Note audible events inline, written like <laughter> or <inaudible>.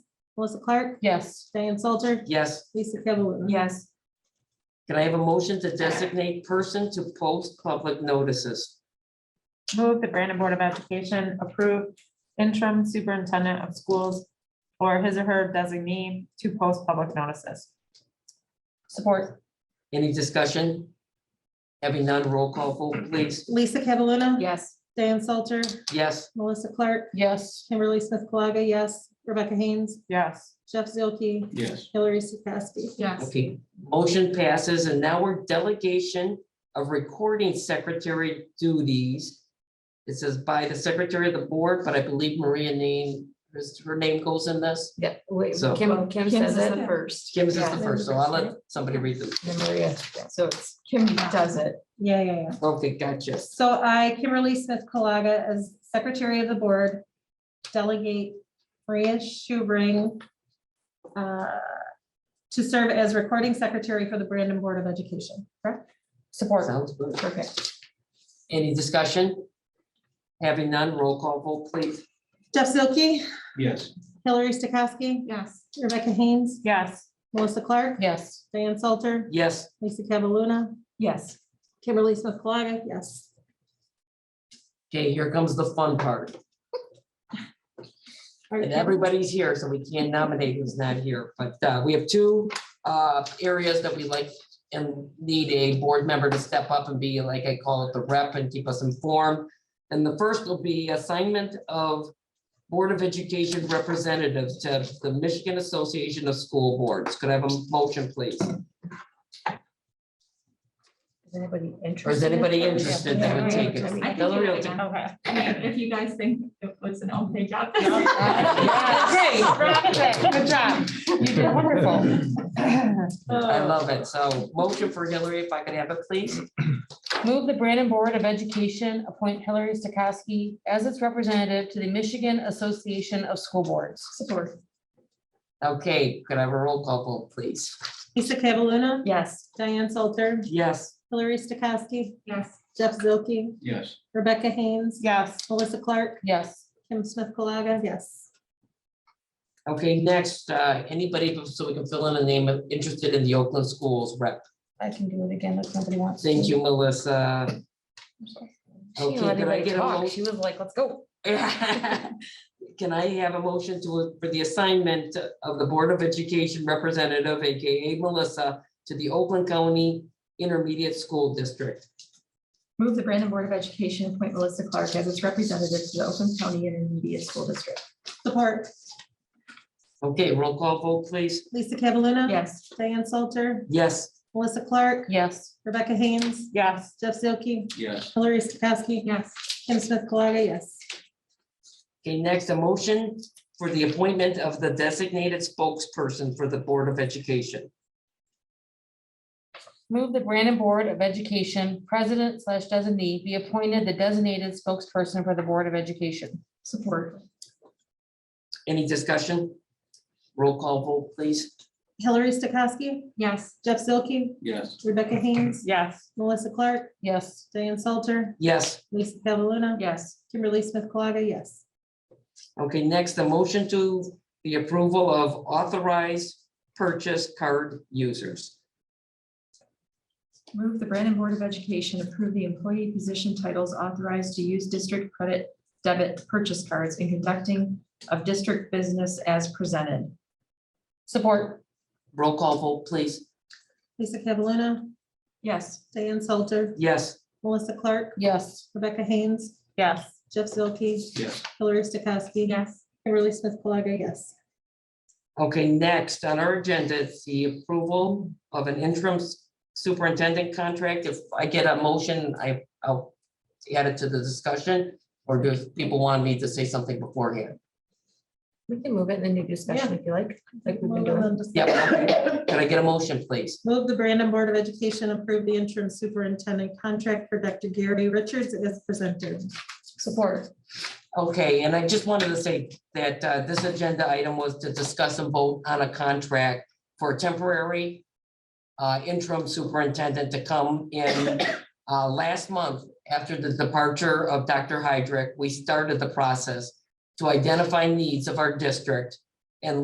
Melissa Clark, Yes. Diane Salter, Yes, Lisa Kavaluna. Yes. can I have a motion to designate person to post public notices? Move the Brandon Board of Education approve interim superintendent of schools or his or her designee to post public notices. Support. Any discussion? Having none, roll call vote, please. Lisa Kavaluna. Yes. Diane Salter, Yes, Melissa Clark, Yes. Kimberly Smith Colaga, yes. Rebecca Haynes, Yes. Jeff Zilke, yes, Hillary Stokowski. Yes. okay, motion passes, and now we're delegation of recording secretary duties. It says by the secretary of the board, but I believe Maria name, her name goes in this. Yeah, wait, So- Kim, Kim says it first. Kim's is Yeah, the first, so I'll let somebody read them. Then Maria, so it's, Kim does it. Yeah, yeah, yeah. Okay, gotcha. So I, Kimberly Smith Colaga, as Secretary of the Board, delegate Maria Schubring uh, to serve as Recording Secretary for the Brandon Board of Education, correct? Support. Sounds good. Perfect. Any discussion? Having none, roll call vote, please. Jeff Zilke, yes, Hillary Stokowski, Yes. Rebecca Haynes, Yes. Melissa Clark, Yes. Diane Salter, Yes, Lisa Cavaluna, <laughs> Yes. Kimberly Smith Colaga, yes. okay, here comes the fun part. And everybody's here, so we can't nominate who's not here, but uh, we have two uh, areas that we like and need a board member to step up and be like, I call it the rep and keep us informed. And the first will be assignment of Board of Education representatives to the Michigan Association of School Boards. Could I have a motion, please? Is anybody interested? Or is anybody interested that would take it? Yeah. Hillary will take- Okay. <laughs> If you guys think it was an okay <laughs> job. Good job. You did wonderful. I love it. So motion for Hillary, if I could have it, please. Move the Brandon Board of Education appoint Hillary Stokowski as its representative to the Michigan Association of School Boards. Support. Okay, could I have a roll call vote, please? Lisa Cavaluna, Yes. Diane Salter, Yes, Hillary Stokowski, Yes, Jeff Zilke, yes, Rebecca Haynes, Yes. Melissa Clark, Yes. Kim Smith Colaga, yes. okay, next, uh, anybody, so we can fill in a name of interested in the Oakland Schools rep. I can do it again if nobody wants. to. Thank you, Melissa. She didn't Okay, let could I anybody get a talk. mo- She was like, let's go. <laughs> Can I have a motion to, for the assignment of the Board of Education Representative, AKA Melissa, to the Oakland County Intermediate School District? move the Brandon Board of Education, appoint Melissa Clark as its representative to the Oakland County Intermediate School District. Support, Okay, roll call vote, please. Lisa Cavaluna. Yes. Diane Salter, Yes. Melissa Clark, Yes. Rebecca Haynes, Yes. Jeff Zilke, yes, Hillary Stokowski, Yes, Kim Smith Colaga, yes. Okay, next, a motion for the appointment of the designated spokesperson for the Board of Education. Move the Brandon Board of Education president slash designee be appointed the designated spokesperson for the Board of Education. support. Any discussion? Roll call vote, please. Hillary Stokowski, Yes, Jeff Zilke, yes, Rebecca Haynes, Yes. Melissa Clark, Yes. Diane Salter, Yes, Lisa Cavaluna, Yes. Kimberly Smith Colaga, yes. okay, next, a motion to the approval of authorized purchase card users. move the Brandon Board of Education, approve the employee position titles authorized to use district credit debit purchase cards in conducting of district business as presented. Support. Roll call vote, please. Lisa Cavaluna, Yes, Diane Salter, Yes, Melissa Clark, Yes. Rebecca Haynes, Yes. Jeff Zilke, yes, Hillary Stokowski. yes, Kimberly Smith Colaga, yes. okay, next, on our agenda, is the approval of an interim superintendent contract. If I get a motion, I, I'll add it to the discussion, or do people want me to say something beforehand? We can move it in the new discussion if you like, like we've been doing. Yeah, okay. can I get a motion, please? Move the Brandon Board of Education approve the interim superintendent contract for Dr. Gary Richards as presented. Support. Okay, and I just wanted to say that uh, this agenda item was to discuss and vote on a contract for a temporary uh, interim superintendent to come in uh, last month after the departure of Dr. Hydrick. We started the process to identify needs of our district